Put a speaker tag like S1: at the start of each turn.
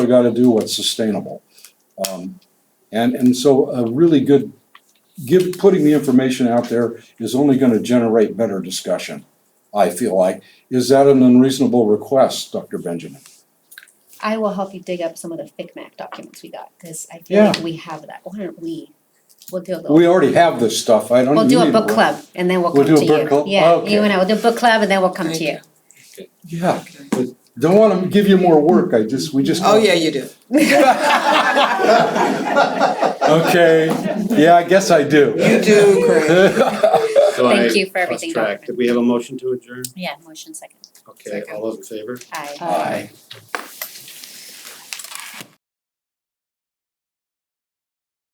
S1: gotta do what's sustainable. Um, and, and so a really good, give, putting the information out there is only gonna generate better discussion, I feel like. Is that an unreasonable request, Dr. Benjamin?
S2: I will help you dig up some of the FICMAC documents we got, cause I feel like we have that, why don't we, we'll do a little.
S1: We already have this stuff, I don't
S2: We'll
S1: need.
S2: do a book
S1: to-
S2: club and then we'll
S1: We'll
S2: come
S1: do
S2: to
S1: a
S2: you.
S1: book club? Oh,
S2: Yeah,
S1: Okay.
S2: you and I will do a book club and then we'll come to you.
S1: Yeah, but don't wanna give you more work, I just, we just.
S3: Oh, yeah, you do.
S1: Okay, yeah, I guess I do.
S3: You do, Craig.
S4: So I
S2: Thank you for everything,
S4: lost track.
S2: Dr.
S4: Did we have a motion to adjourn?
S2: Yeah, motion second.
S4: Okay, all those in favor?
S2: Aye.
S5: Aye.